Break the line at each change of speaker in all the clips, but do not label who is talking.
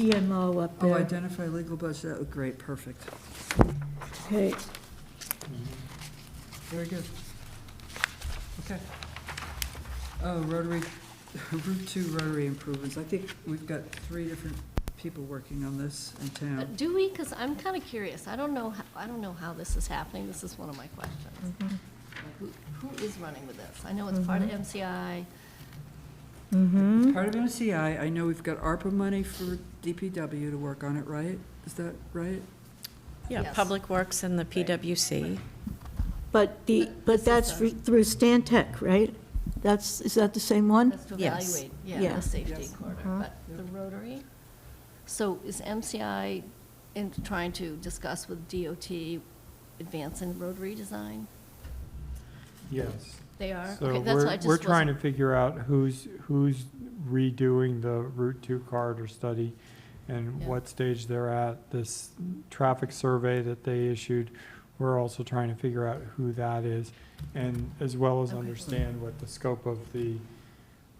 TMO up
Oh,
there.
identify legal budget, oh, great, perfect.
Okay,
Very good. Okay. Oh, Rotary, Route Two Rotary improvements, I think we've got three different people working on this in
But
town.
Uh, do we? Because I'm kind of curious. I don't know, ho- I don't know how this is happening. This is one of my questions.
Mm-hmm.
Who Who is running with this? I know it's part of MCI.
mm-hmm.
Part of MCI, I know we've got ARPA money for DPW to work on it, right? Is that right?
Yeah,
Yes.
Public Works and the PWC.
But the,
But this
but
is
that's
the-
re- through Stan Tech, right? That's, is that the same one?
That's to
Yes.
evaluate, yeah,
Yeah.
the safety
Yes.
corridor,
Mhm.
but the Rotary? So is MCI in trying to discuss with DOT advance in Rotary design?
Yes.
They are?
So
Okay, that's why I
we're,
just
we're trying to
wasn't-
figure out who's, who's redoing the Route Two corridor study and
Yeah.
what stage they're at. This traffic survey that they issued, we're also trying to figure out who that is. And as well as
Okay.
understand what the scope of the,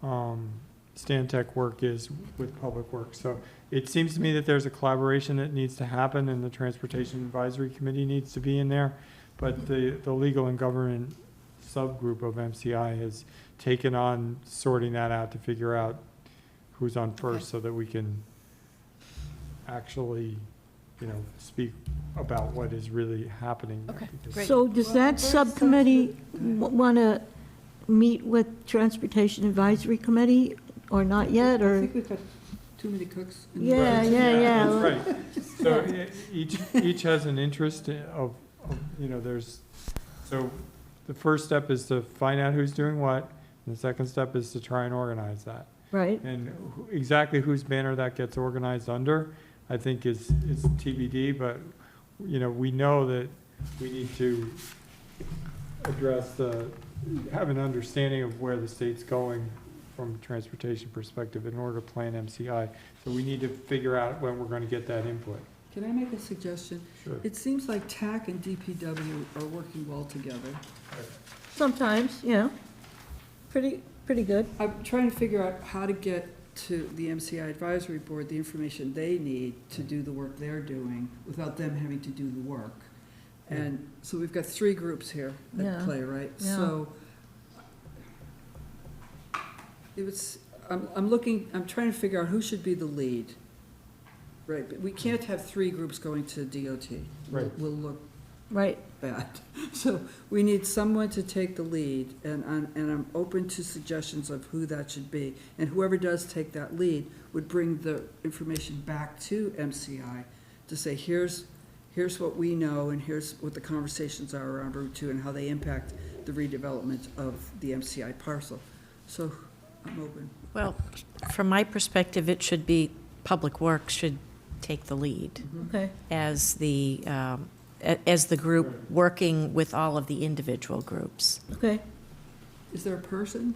um, Stan Tech work is with Public Works. So it seems to me that there's a collaboration that needs to happen and the Transportation Advisory Committee needs to be in there. But the, the legal and government subgroup of MCI has taken on sorting that out to figure out who's on first so that we can actually, you know, speak about what is really happening.
Okay,
Because-
great.
So does that subcommittee want to meet with Transportation Advisory Committee or not yet,
I
or?
think we've got too many cooks. in the
Yeah,
kitchen.
yeah, yeah.
Right, so e- each, each has an interest of, of, you know, there's, so the first step is to find out who's doing what, and the second step is to try and organize that.
Right,
And who- exactly whose banner that gets organized under, I think is, is TBD, but, you know, we know that we need to address the, have an understanding of where the state's going from a transportation perspective in order to plan MCI. So we need to figure out when we're gonna get that input.
Can I make a suggestion?
Sure.
It seems like TAC and DPW are working well together.
sometimes, yeah. Pretty, pretty good.
I'm trying to figure out how to get to the MCI advisory board the information they need to do the work they're doing without them having to do the work. And so we've got three groups here at
Yeah.
play, right?
Yeah.
So it was, I'm, I'm looking, I'm trying to figure out who should be the lead. Right, but we can't have three groups going to DOT. We'll-
Right.
We'll look
Right,
bad. So we need someone to take the lead, and, I'm- and I'm open to suggestions of who that should be. And whoever does take that lead would bring the information back to MCI to say, here's, here's what we know, and here's what the conversations are around Route Two, and how they impact the redevelopment of the MCI parcel. So I'm open.
Well, from my perspective, it should be, Public Works should take the lead
Mm-hmm.
okay.
as the, um, a- as the group working with all of the individual groups.
Okay,
Is there a person?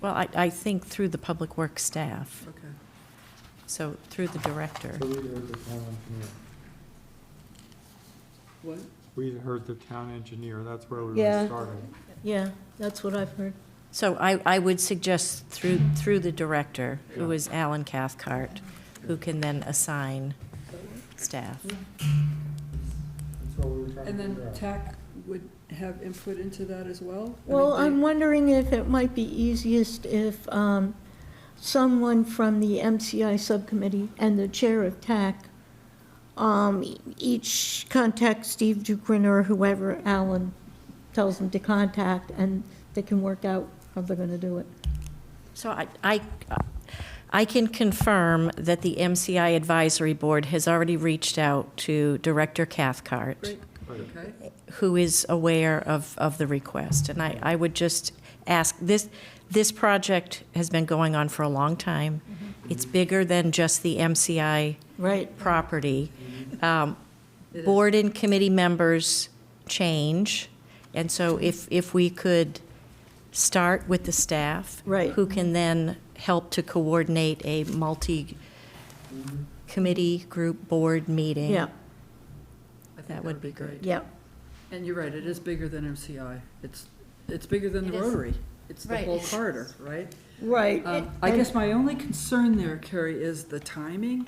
Well, I, I think through the Public Works staff,
Okay.
so through the director.
So we heard the town engineer.
What?
We heard the town engineer, that's where we
Yeah.
were starting.
yeah, that's what I've heard.
So I, I would suggest through, through the director, who is Alan Cathcart, who can then assign staff.
That's what we were trying
And
to
then
figure out.
TAC would have input into that as well? I mean,
Well,
they-
I'm wondering if it might be easiest if um, someone from the MCI subcommittee and the chair of TAC um, e- each contact Steve Dukrin or whoever Alan tells them to contact, and they can work out how they're going to do it.
So I, I, I can confirm that the MCI Advisory Board has already reached out to Director Cathcart,
Great,
Right.
okay.
who is aware of, of the request. And I, I would just ask, this, this project has been going on for a long time. It's bigger than just the MCI
Right.
property. Um,
It is.
Board and committee members change, and so if, if we could start with the staff.
Right.
Who can then help to coordinate a multi-committee group board meeting.
Yeah,
I think
That would be
great.
yeah.
And you're right, it is bigger than MCI. It's, it's bigger than the
It is.
Rotary. It's the
Right,
whole
it is.
corridor, right?
Right.
Um, I guess my only concern there, Carrie, is the timing.